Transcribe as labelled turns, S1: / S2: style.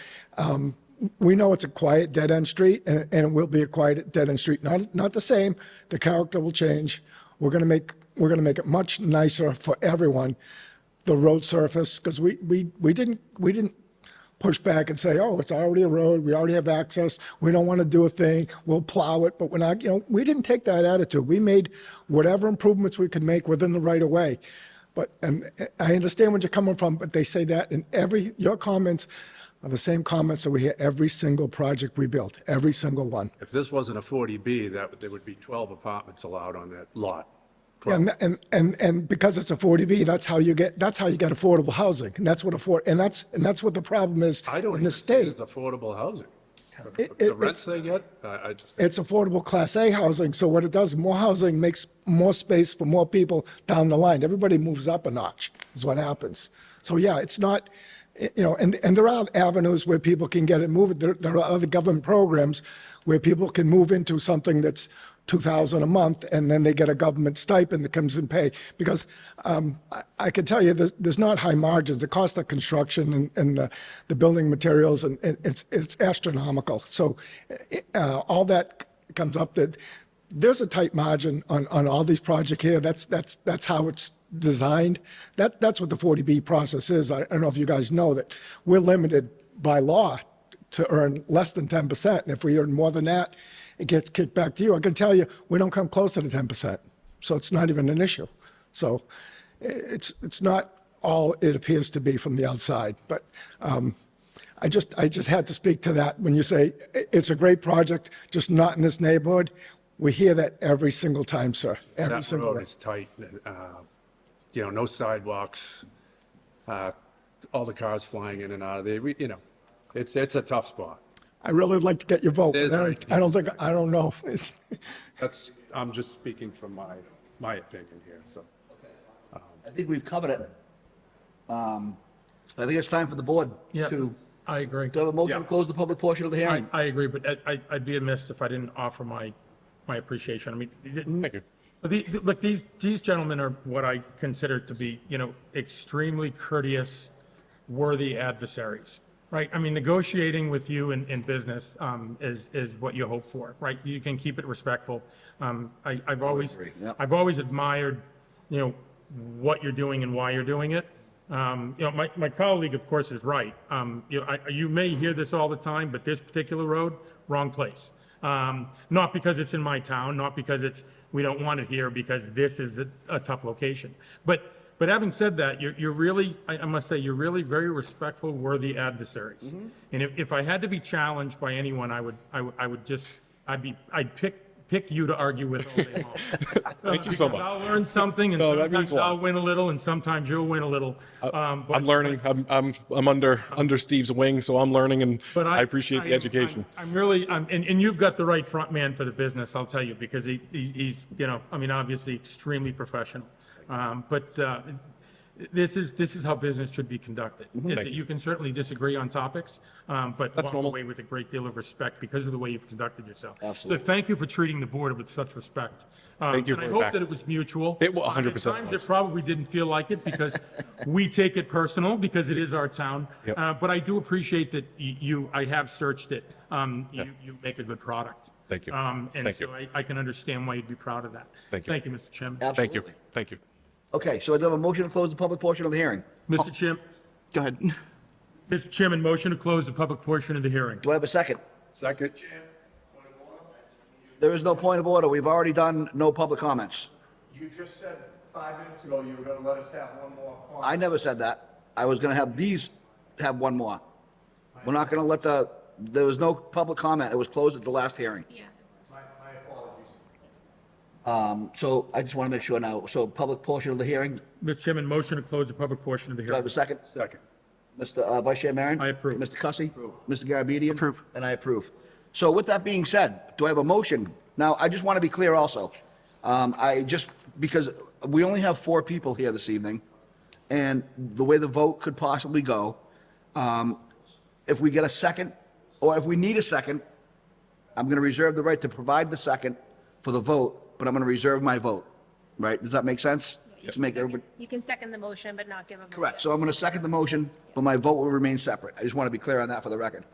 S1: Um, We know it's a quiet, dead-end street, and and it will be a quiet, dead-end street. Not, not the same, the character will change. We're going to make, we're going to make it much nicer for everyone. The road surface, because we, we, we didn't, we didn't push back and say, oh, it's already a road, we already have access, we don't want to do a thing, we'll plow it, but we're not, you know, we didn't take that attitude. We made whatever improvements we could make within the right of way. But, and I understand where you're coming from, but they say that in every, your comments are the same comments that we hear every single project we built, every single one.
S2: If this wasn't a 40B, that, would- there would be 12 apartments allowed on that lot.
S1: And, and, and, and because it's a 40B, that's how you get, that's how you get affordable housing. And that's what afford, and that's, and that's what the problem is
S2: I don't
S1: in the
S2: even see it
S1: state.
S2: as affordable housing.
S1: It-
S2: The
S1: it-
S2: rents they get, I, I,
S1: it's affordable Class A housing, so what it does, more housing makes more space for more people down the line. Everybody moves up a notch, is what happens. So yeah, it's not, you know, and, and there are avenues where people can get it moved. There, there are other government programs where people can move into something that's 2,000 a month, and then they get a government stipend that comes in pay. Because um, I, I can tell you, there's, there's not high margins. The cost of construction and, and the, the building materials, and, and it's, it's astronomical. So uh, all that comes up that there's a tight margin on, on all these projects here. That's, that's, that's how it's designed. That, that's what the 40B process is. I I don't know if you guys know that we're limited by law to earn less than 10%. And if we earn more than that, it gets kicked back to you. I can tell you, we don't come close to the 10%. So it's not even an issue. So i- it's, it's not all it appears to be from the outside. But um, I just, I just had to speak to that when you say, "I- it's a great project, just not in this neighborhood. We hear that every single time, sir. Every
S2: that
S1: single
S2: road
S1: time.
S2: is tight, uh, you know, no sidewalks, uh, all the cars flying in and out of there, We- you know, it's, it's a tough spot.
S1: I really would like to get your vote.
S2: It is
S1: but I
S2: very
S1: don't- I don't think, I don't know. It's-
S2: That's, I'm just speaking from my, my opinion here, so.
S3: I think we've covered it. Um, I think it's time for the board
S4: Yeah,
S3: to,
S4: I agree.
S3: do I have a motion to
S2: Yeah.
S3: close the public portion of the
S4: I,
S3: hearing?
S4: I agree, but I- I, I'd be amiss if I didn't offer my, my appreciation. I mean, Thank you. look, these, these gentlemen are what I consider to be, you know, extremely courteous, worthy adversaries, right? I mean, negotiating with you in, in business, um, is, is what you hope for, right? You can keep it respectful. Um, I, I've always,
S3: yep.
S4: I've always admired, you know, what you're doing and why you're doing it. Um, you know, my, my colleague, of course, is right. Um, you know, I, you may hear this all the time, but this particular road, wrong place. Um, not because it's in my town, not because it's, we don't want it here, because this is a, a tough location. But, but having said that, you're, you're really, I, I must say, you're really very respectful, worthy adversaries. And if, if I had to be challenged by anyone, I would, I would, I would just, I'd be, I'd pick, pick you to argue with all day long. Thank
S5: you so much.
S4: I'll learn something and
S5: No, that
S4: sometimes
S5: means a lot.
S4: I'll win a little and sometimes you'll win a little. Um, but-
S5: I'm learning. I'm, I'm, I'm under, under Steve's wing, so I'm learning and
S4: but
S5: I
S4: I
S5: appreciate the
S4: am-
S5: education.
S4: I'm I'm really, I'm, and, and you've got the right front man for the business, I'll tell you, because he, he- he's, you know, I mean, obviously extremely professional. Um, but, uh, this is, this is how business should be conducted.
S5: Mm-hmm.
S4: Is that you can certainly disagree on topics, um, but walk
S5: normal.
S4: away with a great deal of respect because of the way you've conducted yourself.
S3: Absolutely.
S4: So thank you for treating the board with such respect. Um,
S5: Thank you
S4: and
S5: for
S4: I
S5: it
S4: hope
S5: back.
S4: that it was mutual.
S5: It wa-
S4: Um, at
S5: 100%
S4: times
S5: was.
S4: It probably didn't feel like it because we take it personal because it is our town.
S5: Yep.
S4: Uh, but I do appreciate that y- you, I have searched it. Um, you, you make a good product.
S5: Thank you.
S4: Um, and
S5: Thank you.
S4: so I, I can understand why you'd be proud of that.
S5: Thank you.
S4: Thank you, Mr. Chairman.
S5: Thank you.
S3: Absolutely.
S5: Thank you.
S3: Okay, so I do have a motion to close the public portion of the hearing.
S4: Mr. Chair,
S6: Oh, Go ahead.
S4: Mr. Chairman, motion to close the public portion of the hearing.
S3: Do I have a second?
S2: Second.
S3: There is no point of order. We've already done no public comments.
S7: You just said five minutes ago you were gonna let us have one more call.
S3: I never said that. I was gonna have these have one more. We're not gonna let the, there was no public comment. It was closed at the last hearing.
S8: Yeah, it was.
S7: My apologies.
S3: Um, So I just wanna make sure now, so public portion of the hearing,
S4: Mr. Chairman, motion to close the public portion of the
S3: do I have
S4: hearing.
S3: a second?
S2: Second.
S3: Mr. uh, Vice Chair Maron?
S4: I approve.
S3: Mr. Cussy? Mr. Garabedian? Approve. And I approve. So with that being said, do I have a motion? Now, I just want to be clear also. Um, I just, because we only have four people here this evening, and the way the vote could possibly go, um, if we get a second, or if we need a second, I'm going to reserve the right to provide the second for the vote, but I'm going to reserve my vote, right? Does that make sense? To make everybody.
S8: You can second the motion, but not give a vote.
S3: Correct, so I'm going to second the motion, but my vote will remain separate. I just want to be clear on that for the record.